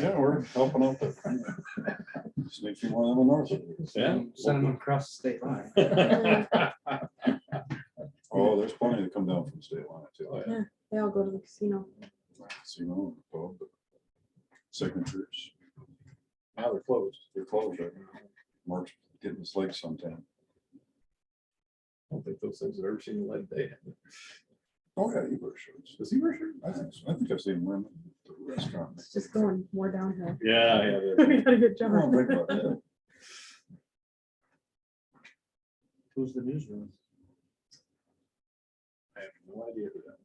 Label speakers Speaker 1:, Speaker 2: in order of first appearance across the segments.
Speaker 1: Yeah, we're helping out there. Sneaky one of them north. of us.
Speaker 2: Yeah.
Speaker 3: Send them across the state line.
Speaker 1: Oh, there's plenty that come down from state line too.
Speaker 2: Yeah.
Speaker 4: They all go to the casino.
Speaker 1: See, no, well, but signatures,
Speaker 2: Now they're closed.
Speaker 1: they're closed. right now. Mark's getting his legs sometime.
Speaker 2: I don't think those things have ever seen the light of day.
Speaker 1: Oh, yeah, you wear shirts.
Speaker 2: Does he wear shirts? Oh,
Speaker 1: I think, so. I think I've seen women at the restaurant.
Speaker 4: It's just going more downhill.
Speaker 2: Yeah, yeah.
Speaker 4: We got a good
Speaker 1: I
Speaker 4: job.
Speaker 1: don't think about that.
Speaker 3: Who's the newsroom?
Speaker 2: I have no idea who that.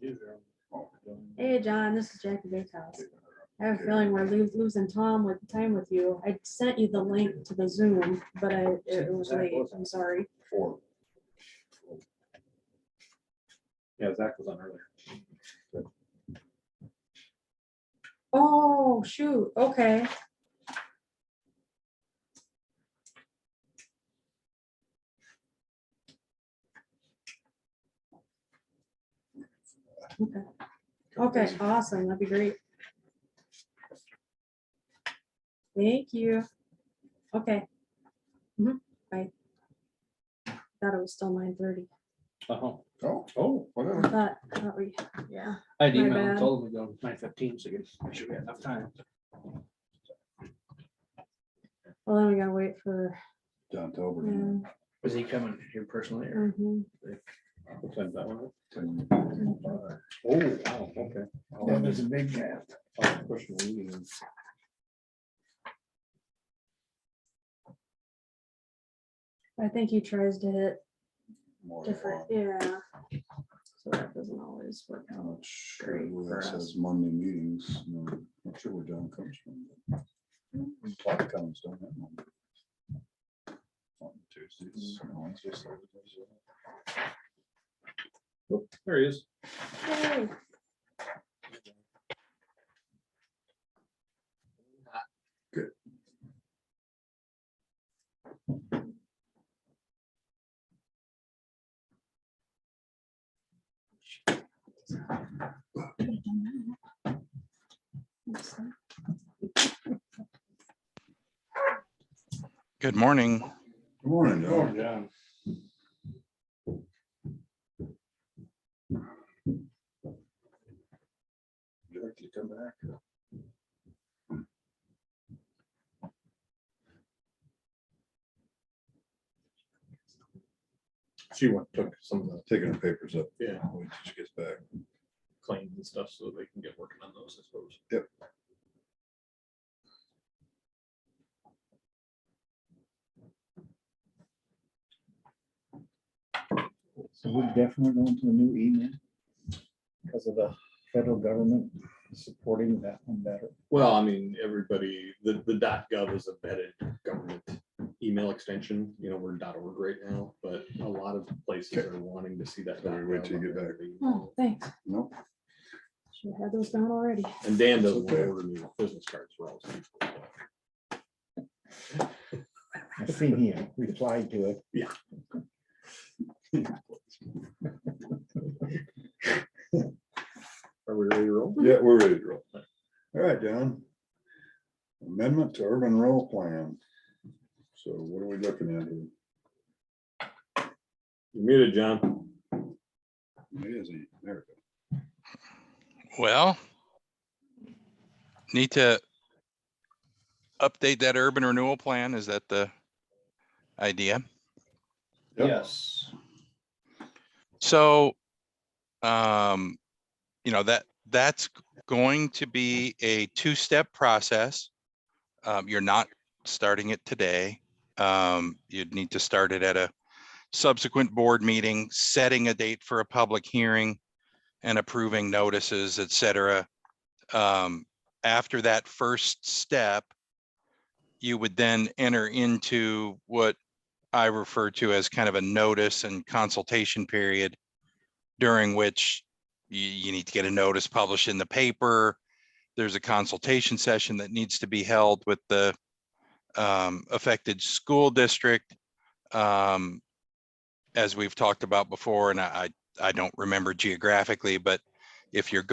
Speaker 3: Newsroom.
Speaker 1: Oh.
Speaker 4: Hey, John, this is Jackie Bakehouse. I have a feeling we're lo- losing Tom with time with you. I sent you the link to the Zoom, but I, it was late. I'm sorry.
Speaker 1: Four.
Speaker 2: Yeah, Zach was on earlier.
Speaker 4: Oh, shoot. Okay. Okay. Okay, awesome. That'd be great. Thank you. Okay. Mhm, Bye. Thought it was still nine thirty.
Speaker 3: Oh,
Speaker 1: Oh,
Speaker 2: Oh,
Speaker 1: whatever.
Speaker 4: I thought, I thought we, yeah.
Speaker 3: I had
Speaker 4: My
Speaker 3: emailed
Speaker 4: bad.
Speaker 3: and told him to go nine fifteen, so you make sure we have enough time.
Speaker 4: Well, then we gotta wait for,
Speaker 1: John Talbot.
Speaker 4: um,
Speaker 3: Was he coming here personally or?
Speaker 4: mhm.
Speaker 2: what time's that one?
Speaker 1: Ten-
Speaker 2: Oh, wow, okay.
Speaker 3: That was a big gap.
Speaker 2: Oh, question leading.
Speaker 4: I think he tries to hit
Speaker 1: more than one.
Speaker 4: different, yeah. Um, So that doesn't always work
Speaker 1: I'm
Speaker 4: out.
Speaker 1: not sure
Speaker 4: Great
Speaker 1: where
Speaker 4: for
Speaker 1: it
Speaker 4: us.
Speaker 1: says Monday meetings. No, Not sure where John comes from. but A lot of comments don't have Monday. On Tuesdays, and Wednesdays, Thursdays, uh,
Speaker 2: Oh, There he is.
Speaker 4: Yay. Could've done that. Looks like-
Speaker 5: Good morning.
Speaker 1: Good morning, John.
Speaker 3: Yeah.
Speaker 2: Jack, you come back. She went, took some of the
Speaker 1: Taking the papers up.
Speaker 2: Yeah.
Speaker 1: Wait till she gets back.
Speaker 2: claims and stuff so they can get working on those, I suppose.
Speaker 1: Yep.
Speaker 6: So we're definitely going to a new email because of the federal government supporting that one better.
Speaker 2: Well, I mean, everybody, the, the .gov is a vetted government email extension, you know, we're .org right now, but a lot of places are wanting to see that.
Speaker 1: So we wait till you get back.
Speaker 4: Oh, thanks.
Speaker 1: Nope.
Speaker 4: Should have had those down already.
Speaker 2: And Dan doesn't want
Speaker 1: Okay.
Speaker 2: to order new business cards for all. these people.
Speaker 6: I see here, replied to it.
Speaker 2: Are we ready to roll?
Speaker 1: Yeah, we're ready to roll. All right, John. Amendment to urban rural plan. So what are we looking at here?
Speaker 2: You're muted, John.
Speaker 1: It is in America.
Speaker 5: Well, need to update that urban renewal plan. Is that the idea?
Speaker 1: Yep.
Speaker 3: Yes.
Speaker 5: So, um, you know, that, that's going to be a two-step process. Um, you're not starting it today. Um, you'd need to start it at a subsequent board meeting, setting a date for a public hearing and approving notices, et cetera. Um, after that first step, you would then enter into what I refer to as kind of a notice and consultation period during which you, you need to get a notice published in the paper. There's a consultation session that needs to be held with the um, affected school district. Um, as we've talked about before, and I, I I don't remember geographically, but if you're